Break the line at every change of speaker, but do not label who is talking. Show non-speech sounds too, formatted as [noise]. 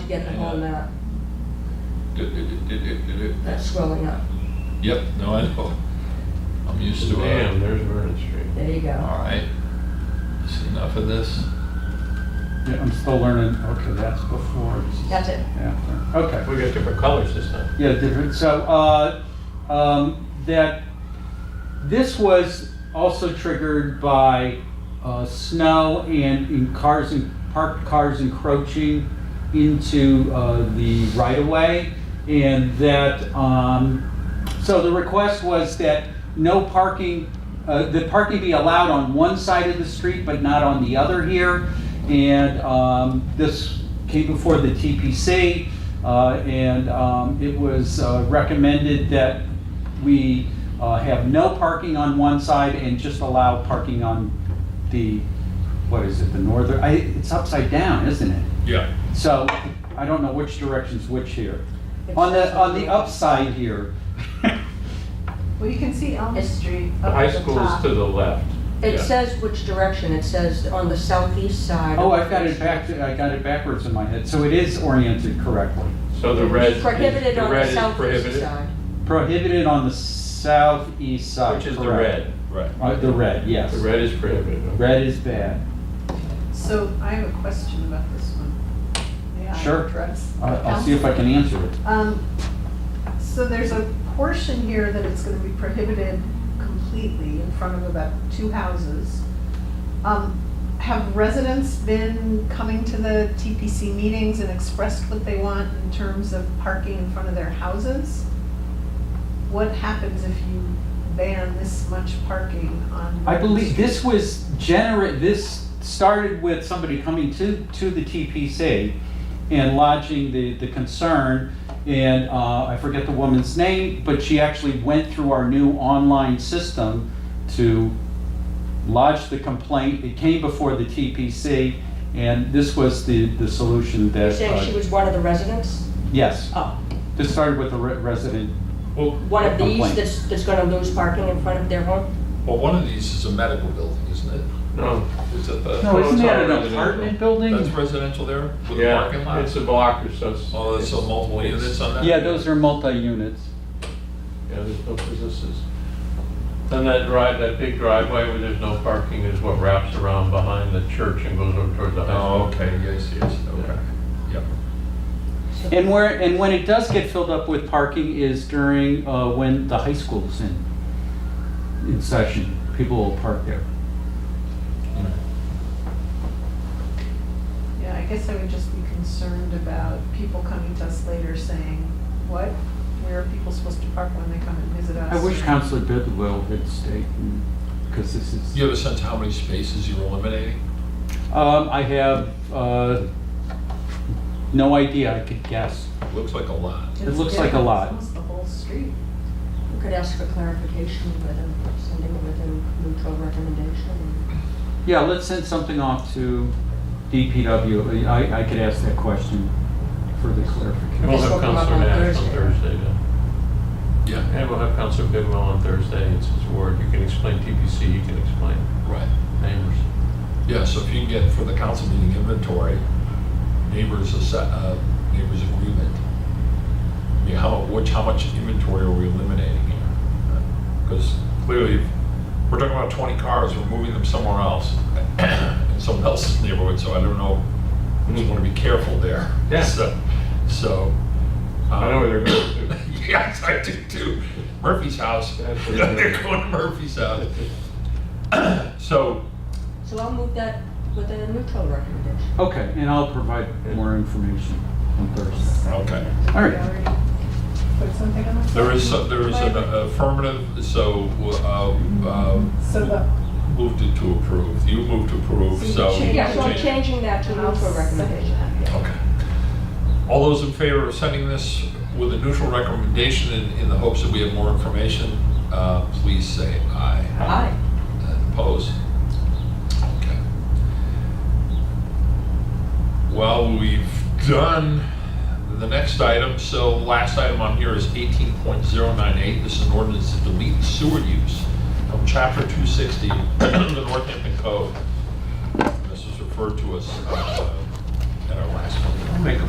to get the whole uh, map,
Did- did- did- did- did it-
that's scrolling up.
Yep, no, I know. I'm used to
Damn,
it.
there's Vernon Street.
There you
All
go.
right. Is enough of this?
Yeah, I'm still learning, okay, that's before, this is
That's it.
after, okay.
We got different colors this time.
Yeah, different, so, uh, um, that, this was also triggered by, uh, snow and in cars and, parked cars encroaching into, uh, the right of way. And that, um, so the request was that no parking, uh, the parking be allowed on one side of the street, but not on the other here. And um, this came before the TPC, uh, and um, it was uh, recommended that we uh, have no parking on one side and just allow parking on the, what is it, the northern, I- it's upside down, isn't it?
Yeah.
So I don't know which direction's which here. On the, on the upside here,
Well, you can see Elm
It's-
Street
The
up
high
at the
school's
top.
to the left.
It
Yeah.
says which direction, it says on the southeast side.
Oh, I've got it back, I got it backwards in my head, so it is oriented correctly.
So the red. is-
Prohibited
the
on
red
the
is
southeast
prohibited,
side.
Prohibited on the southeast side.
Which is the
correct.
red.
Right.
Uh, the red, yes.
The red is prohibited. okay.
Red is bad.
So I have a question about this one. May I
Sure.
address?
I- I'll see if I can answer it.
Um, So there's a portion here that it's gonna be prohibited completely in front of about two houses. Um, Have residents been coming to the TPC meetings and expressed what they want in terms of parking in front of their houses? What happens if you ban this much parking on?
I believe this was gener, this started with somebody coming to, to the TPC and lodging the, the concern. And uh, I forget the woman's name, but she actually went through our new online system to lodge the complaint. It came before the TPC and this was the, the solution that.
You're saying she
uh,
was one of the residents?
Yes,
Oh,
this started with a re- resident.
Well,
one of these
Complaint.
that's, that's gonna lose parking in front of their home?
well, one of these is a medical building, isn't it?
No,
Is it the?
No,
it's
isn't that an
residential.
apartment building?
That's residential there with a parking
yeah,
lot?
it's a block or so. it's-
Oh, that's so multiple
it's-
units on that?
Yeah, those are multi-units.
Yeah, there's no businesses. And that drive, that big driveway where there's no parking is what wraps around behind the church and goes over towards the high school.
Oh, okay, yes, yes, okay. Yep.
And where, and when it does get filled up with parking is during, uh, when the high school's in, in session. People will park there.
Yeah, I guess I would just be concerned about people coming to us later saying, what? Where are people supposed to park when they come and visit us?
I wish Counselor Bidwell had stayed, and- because this
Do you
is,
have a sense how many spaces you're eliminating?
um, I have, uh, no idea, I could guess.
Looks like a lot.
It looks like a
It's
lot.
Almost the whole street.
We could ask for clarification with them, sending it with a neutral recommendation.
Yeah, let's send something off to DPW. I, I could ask that question for the clarification.
We'll
This will
have
come up
Counselor
on
Nash on
Thursday.
Thursday then.
Yeah,
And we'll have Counselor Bidwell on Thursday, it's his ward, you can explain TPC, you can explain
right.
neighbors.
Yeah, so if you can get for the council meeting inventory, neighbors, asse- uh, neighbors agreement. I mean, how, which, how much inventory are we eliminating here? Because clearly, if we're talking about twenty cars, we're moving them somewhere else, in someone else's neighborhood, so I don't know. We just want to be careful there.
Yeah.
So, so.
I know
um,
where
[laughs]
they're going to.
Yes, I do too. Murphy's house. [laughs]
That's what it
They're
is.
going to Murphy's house. [clears throat] So,
So I'll move that with a neutral recommendation.
Okay, and I'll provide more information on Thursday.
okay.
All right.
Did I already Put something on that?
There is, some- there is an
Right.
affirmative, so uh,
So
uh,
the,
moved it to approve. You moved to approve,
So
so.
you
Yeah, so I'm
Change.
changing that to
I'll
neutral
second
recommendation.
that.
Okay. All those in favor of sending this with a neutral recommendation in, in the hopes that we have more information, uh, please say aye.
Aye.
And Opposed? Okay. Well, we've done the next item, so last item on here is 18.098. This is an ordinance to delete sewer use from chapter 260 of the Northampton Code. This was referred to us uh, at our last one.
Make a